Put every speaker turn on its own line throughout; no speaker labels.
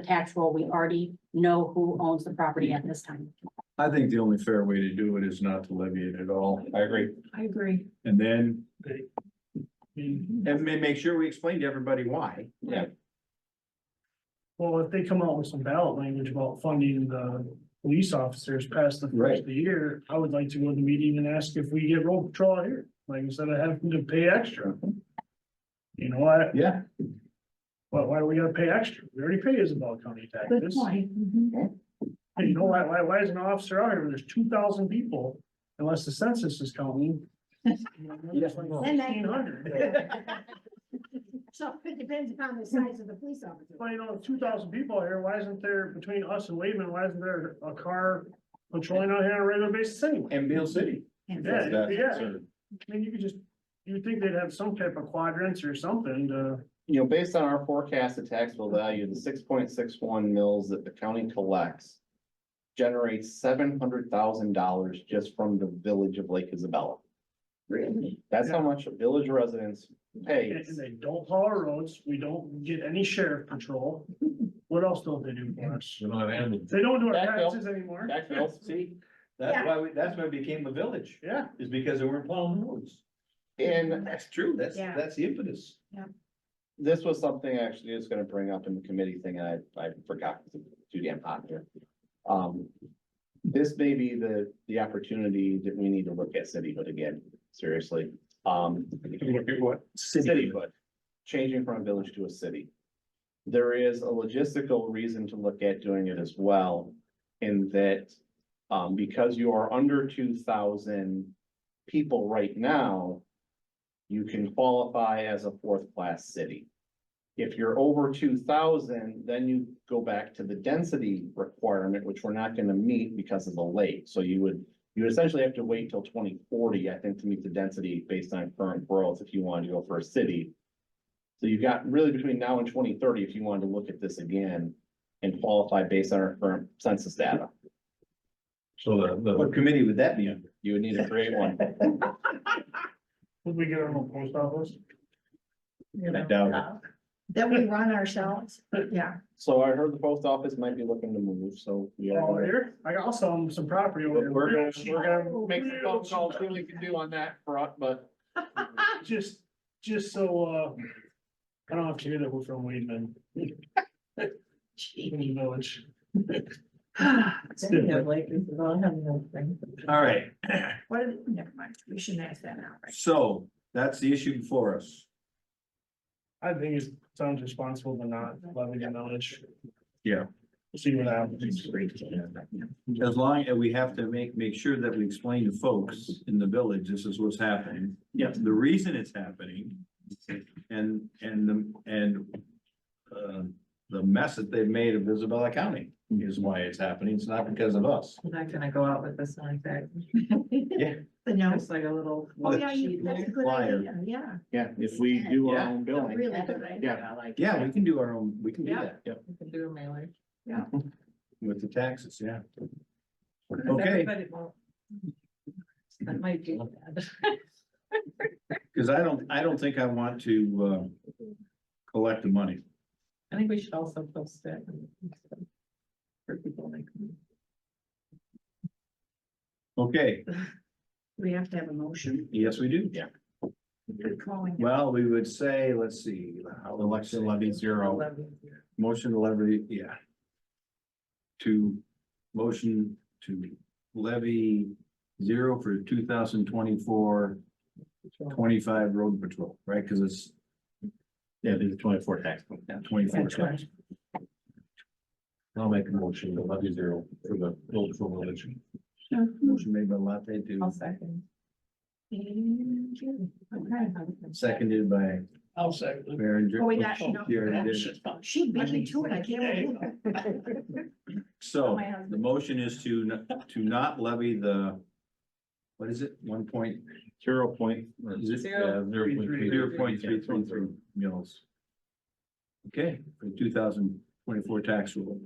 tax roll, we already know who owns the property at this time.
I think the only fair way to do it is not to levy it at all.
I agree.
I agree.
And then,
Well,
and ma- make sure we explain to everybody why.
if they come out with some ballot language about funding the police officers past the first
Right.
of the year, I would like to go to the meeting and ask if we get road patrol out here, like instead of having to pay extra. You know, I,
Yeah.
why, why do we gotta pay extra? We already pay Isabel County taxes. And you know, why, why, why is an officer out here when there's two thousand people, unless the census is counting?
Yes, I know.
Fifteen hundred.
So it depends upon the size of the police officer.
Well, you know, two thousand people here, why isn't there, between us and Wayman, why isn't there a car patrolling out here on a regular basis anyway?
And Bill City.
Yeah,
That's
yeah.
concerned.
I mean, you could just, you would think they'd have some type of quadrants or something to,
You know, based on our forecasted taxable value, the six point six one mills that the county collects. Generates seven hundred thousand dollars just from the village of Lake Isabella. Really? That's how much village residents
and
pay.
and they don't plow our roads, we don't get any sheriff patrol. What else don't they do for us?
We don't have animals.
They don't do our
Backfill.
taxes anymore.
Back bills.
See, that's why, we that's why it became a village,
Yeah,
is because they weren't plowing roads.
And
That's true, that's,
Yeah.
that's the impetus.
this was something I actually was gonna bring up in the committee thing, and I, I forgot, it's too damn hot here. Um, this may be the, the opportunity that we need to look at cityhood again, seriously. Um,
What?
cityhood, changing from a village to a city. There is a logistical reason to look at doing it as well, in that, um, because you are under two thousand people right now, you can qualify as a fourth-class city. If you're over two thousand, then you go back to the density requirement, which we're not gonna meet because of the lake. So you would, you would essentially have to wait till twenty forty, I think, to meet the density based on current growth if you wanted to go for a city. So you've got really between now and twenty thirty, if you wanted to look at this again and qualify based on our current census data,
So the, the. What committee would that be under?
you would need to create one.
would we get our own post office?
you
I
know,
doubt
Uh, That we run ourselves, yeah.
So I heard the post office might be looking to move, so we are.
Oh, here, I got some, some property over
We're
there.
gonna, we're gonna make some phone calls, see what we can do on that front, but
Just, just so, uh, I don't have to hear that we're from Weedman. Weedman Village. different.
All right,
What, are the- never mind, we shouldn't ask that now, right?
so that's the issue before us.
I think it sounds responsible to not levy the knowledge.
Yeah.
See what happens.
As long, as we have to make, make sure that we explain to folks in the village, this is what's happening.
Yes.
The reason it's happening and, and, the and uh, the mess that they've made of Isabella County is why it's happening. It's not because of us.
I'm not gonna go out with this like that,
The no.
just like a little.
Oh, yeah, you,
sheet
that's a
there.
good
Flyer.
idea, yeah.
yeah, if we do our own
A
billing.
Really good idea.
Yeah.
I like
Yeah,
that.
we can do our own, we can do
Yeah.
that. Yep.
We can do a mailer.
With the taxes, yeah.
But
Okay,
everybody won't. That might be bad.
because I don't, I don't think I want to, uh, collect the money.
I think we should also post it. For people like.
Okay,
We have to have a motion,
yes, we do.
We're calling. it.
Well, we would say, let's see, election levy zero. Motion to levy, yeah. To motion to levy zero for 2024-25 road patrol, right? Because it's. Yeah, the twenty-four tax. Twenty-four tax. I'll make a motion to levy zero for the build for religion. Motion made by Latte
I'll
to,
second.
And, yeah, Okay.
seconded by
I'll second.
Berenger.
Oh, we got, you know,
You already did it.
she- she beat me to it, I can't. remember.
So
My husband.
the motion is to, n- to not levy the, what is it, one point? Zero point.
Zero.
Zero point three, zero point three three three mills. Okay, for two thousand twenty-four tax rule.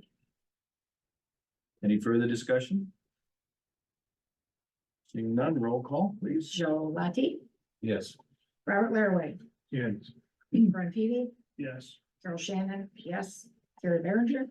Any further discussion? Seeing none, roll call, please.
Joe Latte,
Yes.
Robert Laraway,
Yes.
Brian Peavy,
Yes.
Carol Shannon, yes, Carrie Berenger.